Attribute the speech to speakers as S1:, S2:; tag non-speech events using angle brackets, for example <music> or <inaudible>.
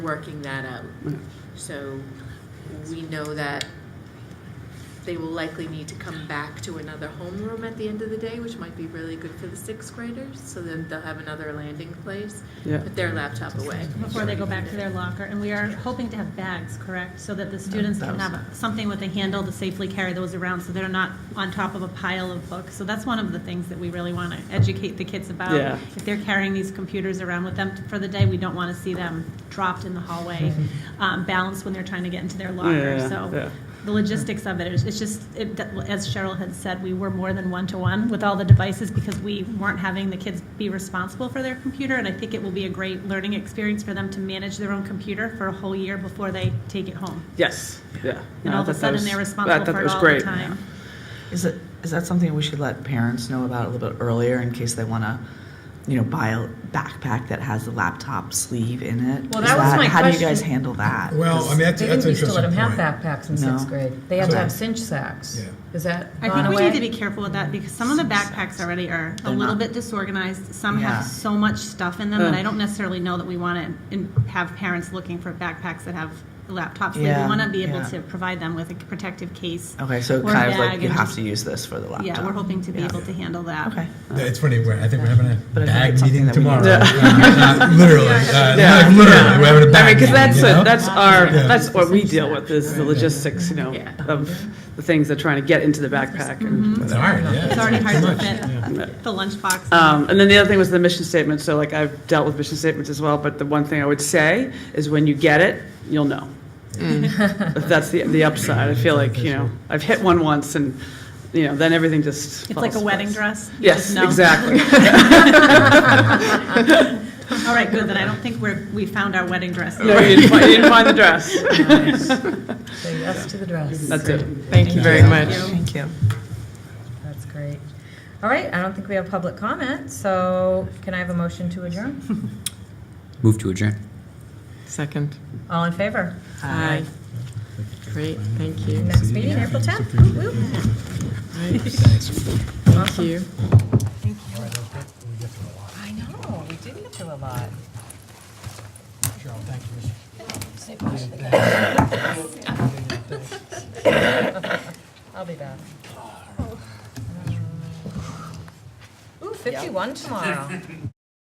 S1: working that out.
S2: Mm-hmm.
S1: So we know that they will likely need to come back to another homeroom at the end of the day, which might be really good for the sixth graders, so then they'll have another landing place.
S3: Yeah.
S1: Put their laptop away.
S2: before they go back to their locker. And we are hoping to have bags, correct? So that the students can have something with a handle to safely carry those around so they're not on top of a pile of books. So that's one of the things that we really want to educate the kids about.
S3: Yeah.
S2: If they're carrying these computers around with them for the day, we don't want to see them dropped in the hallway, um, balanced when they're trying to get into their locker.
S3: Yeah,
S2: So
S3: yeah.
S2: the logistics of it is, it's just, it, that- as Cheryl had said, we were more than one-to-one with all the devices because we weren't having the kids be responsible for their computer, and I think it will be a great learning experience for them to manage their own computer for a whole year before they take it home.
S3: Yes, yeah.
S2: And
S3: No, I
S2: all of
S3: thought
S2: a
S3: that
S2: sudden,
S3: was-
S2: they're
S3: I
S2: responsible
S3: thought that
S2: for it
S3: was
S2: all the
S3: great.
S2: time.
S4: Is it is that something we should let parents know about a little bit earlier in case they want to, you know, buy a backpack that has the laptop sleeve in it?
S1: Well,
S4: Is
S1: that was my
S4: how do
S1: question.
S4: you guys handle that?
S5: Well,
S4: 'Cause-
S5: I mean, that's,
S6: They
S5: that's
S6: didn't
S5: an
S6: used to let them
S5: interesting
S6: have
S5: point.
S6: backpacks in sixth
S4: No.
S6: grade. They had to
S5: So-
S6: have cinch sacks.
S5: Yeah.
S6: Is that
S2: I
S6: gone
S2: think we
S6: away?
S2: need to be careful with that because some of the backpacks already are a
S4: They're
S2: little
S4: not-
S2: bit disorganized. Some
S4: Yeah.
S2: have so much stuff in them that
S3: Ugh.
S2: I don't necessarily know that we want to have parents looking for backpacks that have laptops. Like,
S4: Yeah,
S2: We want to be able
S4: yeah.
S2: to provide them with a protective case.
S4: okay, so
S2: or a
S4: kind of like
S2: bag
S4: you
S2: and
S4: have
S2: just-
S4: to use this for the laptop.
S2: Yeah, we're hoping to be
S4: Yeah.
S2: able to handle that.
S4: Okay.
S5: Yeah, It's funny, we're, I think we're having a
S4: But I think
S5: bag
S4: it's something
S5: meeting
S4: that we
S5: tomorrow.
S4: need
S5: Uh,
S2: <laughs>
S5: uh, Literally, uh,
S3: Yeah.
S5: like literally, we're having a
S3: I mean,
S5: bag
S3: because
S5: meeting,
S3: that's,
S5: you know?
S3: it- that's our,
S5: Yeah.
S3: that's what we deal with, is the logistics, you know,
S1: Yeah.
S3: of the things they're trying to get into the backpack. and-
S2: Mm-hmm.
S5: It's hard, yeah.
S2: It's already hard to
S5: much.
S2: fit the lunchbox.
S3: Um, And then the other thing was the mission statement, so like, I've dealt with mission statements as well, but the one thing I would say is when you get it, you'll know.
S2: Mm.
S3: If That's the, the upside, I feel like, you know, I've hit one once, and, you know, then everything just
S2: It's like a
S3: falls
S2: wedding
S3: apart.
S2: dress. You
S3: Yes,
S2: just know.
S3: exactly.
S2: <laughs> All right, good, then I don't think we're, we found our wedding dress.
S3: No, you didn't find- you didn't find the dress.
S6: Say yes to the dress.
S3: That's it.
S4: Thank you
S3: very much.
S4: Thank you.
S6: That's great. All right, I don't think we have public comment, so can I have a motion to adjourn?
S7: Move to adjourn.
S8: Second.
S6: All in favor?
S8: Aye. Great, thank you.
S6: Next meeting, April 10th. Woo.
S8: Thank you.
S6: I know, we did get through a lot. I'll be back. Um, Ooh, 51 tomorrow.